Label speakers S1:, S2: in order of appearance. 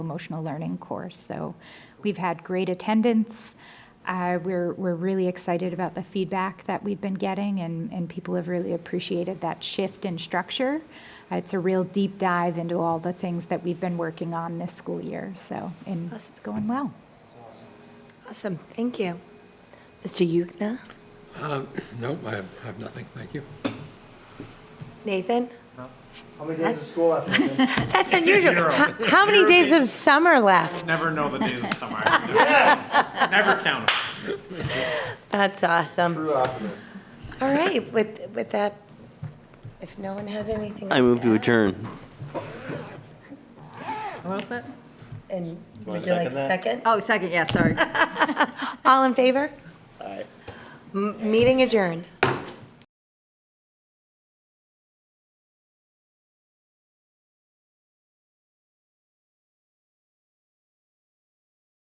S1: emotional learning course. So we've had great attendance. Uh, we're, we're really excited about the feedback that we've been getting, and, and people have really appreciated that shift in structure. Uh, It's a real deep dive into all the things that we've been working on this school year. So, and it's going well.
S2: Awesome, thank you. Mr. Yugna?
S3: Um, No, I have I have nothing, thank you.
S2: Nathan?
S4: How many days of school after this?
S2: That's unusual. How how many days of summer left?
S5: Never know the days of summer. Yes. Never count 'em.
S2: That's awesome.
S4: True optimist.
S2: All right, with, with that, if no one has anything else.
S6: I move to
S2: add,
S6: adjourn.
S7: What was that?
S2: And would you
S4: second
S2: like to
S4: that?
S2: second?
S7: Oh, second, yeah, sorry.
S2: All in favor?
S4: All right.
S2: M- Meeting adjourned.